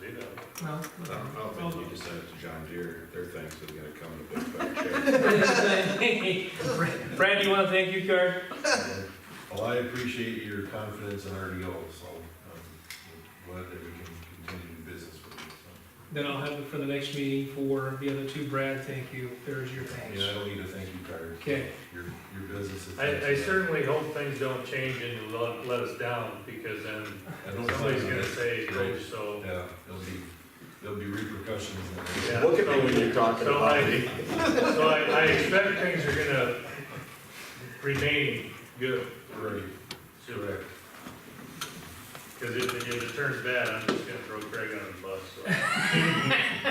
Well, I don't know, Well, maybe you can send it to John Deere, their thing's is gonna come in a big fat check. Brad, you want to thank you card? Well, I appreciate your confidence in RDO, so um, I'm glad that we can continue the business with you. so. Then I'll have it for the next meeting for the other two. Brad, thank you. There's your thanks. Yeah, I don't need a thank you card. Okay. Your, your business is. I, I certainly hope things don't change and let, let us down, because then I don't somebody's think gonna that- say, oh, so. Yeah, there'll be, there'll be repercussions. in yeah, there. Look at me when so- you're talking So about I, me. so I, I expect things are gonna remain good, Right, correct. because if, if it turns bad, I'm just gonna throw Craig on the bus, so.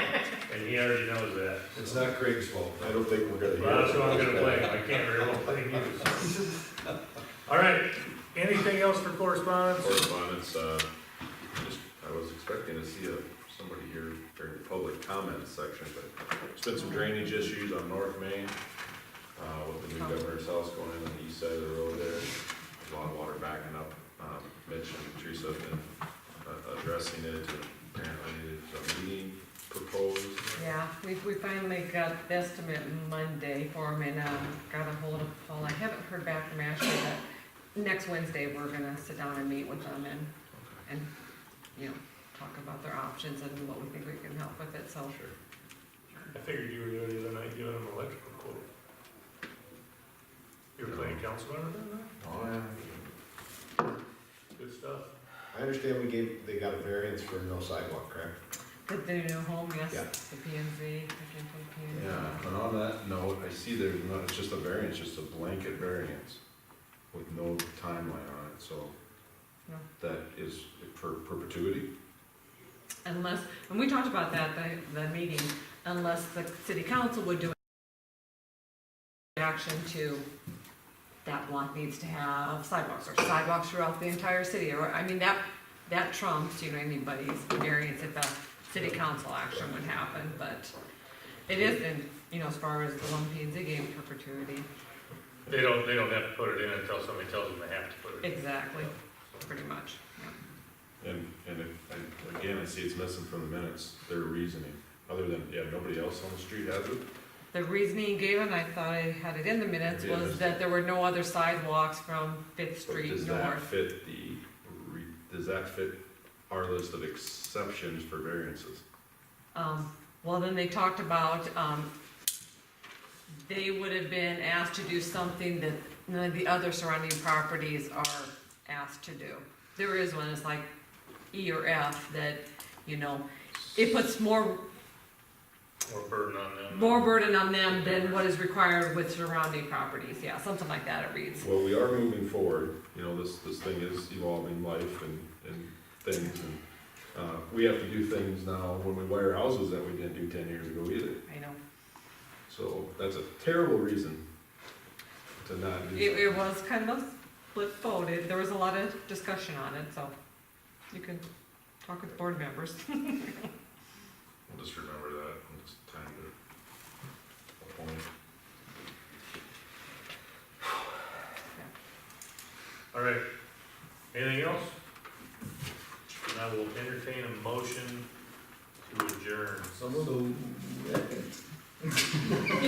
And he already knows that. It's not Craig's fault. I don't think we're gonna hear. Well, that's who I'm it. gonna blame, I can't very well blame you. so. All right, anything else for correspondence? Correspondence, uh, just, I was expecting to see a, somebody here during the public comment section, but there's been some drainage issues on North Main, uh, with the new governor's house going in on the east side of the road there. There's a lot of water backing up, um, Mitch and Teresa have been, uh, addressing it, and apparently there's a meeting proposed. Yeah, we, we finally got the estimate Monday for him and, um, got a hold of Paul. I haven't heard back from Ashley, but next Wednesday, we're gonna sit down and meet with them and, and, you know, talk about their options and what we think we can help with it, so. Sure. I figured you were there the other night giving him an electrical quote. You were playing council member that night? Oh, yeah. Good stuff. I understand we gave, they got a variance for no sidewalk, correct? The, the new home, yes, Yeah. the P and Z, I think the P and Z. Yeah, and on that note, I see there's not, it's just a variance, just a blanket variance with no timeline on it, so No. that is for perpetuity. Unless, and we talked about that, the, the meeting, unless the city council would do action to, that block needs to have sidewalks, or sidewalks throughout the entire city, or, I mean, that, that trumps, you know, anybody's variance if a city council action would happen, but it isn't, you know, as far as the one P and Z game perpetuity, They don't, they don't have to put it in until somebody tells them they have to put it in. exactly, pretty much, yeah. And, and it- and again, I see it's missing from the minutes, their reasoning, other than, yeah, nobody else on the street has it. The reasoning given, I thought I had it in the minutes, Yeah, was that's- that there were no other sidewalks from Fifth But Street Does that north. fit the, re- does that fit our list of exceptions for variances? Um, well, then they talked about, um, they would have been asked to do something that none of the other surrounding properties are asked to do. There is one, it's like E or F that, you know, it puts more, More burden on them. more burden on them than what is required with surrounding properties, yeah, something like that it reads. Well, we are moving forward, you know, this, this thing is evolving life and, and things, and, uh, we have to do things now when we wire houses that we didn't do ten years ago either. I know, So that's a terrible reason to not do it, that. it was kind of split voted, there was a lot of discussion on it, so you can talk with board members. We'll Just remember that, when it's time to appoint. All right, anything else? And I will entertain a motion to adjourn.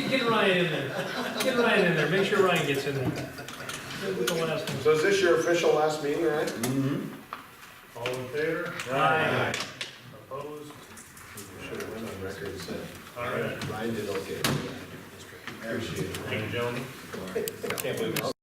Get Ryan in there. Get Ryan in there. Make sure Ryan gets in there. That was the last one. So is this your official last meeting, right? All in favor? Aye. Opposed? Should have went on record and said, All right, Ryan did okay. Appreciate it. thank you, gentlemen. I can't believe it.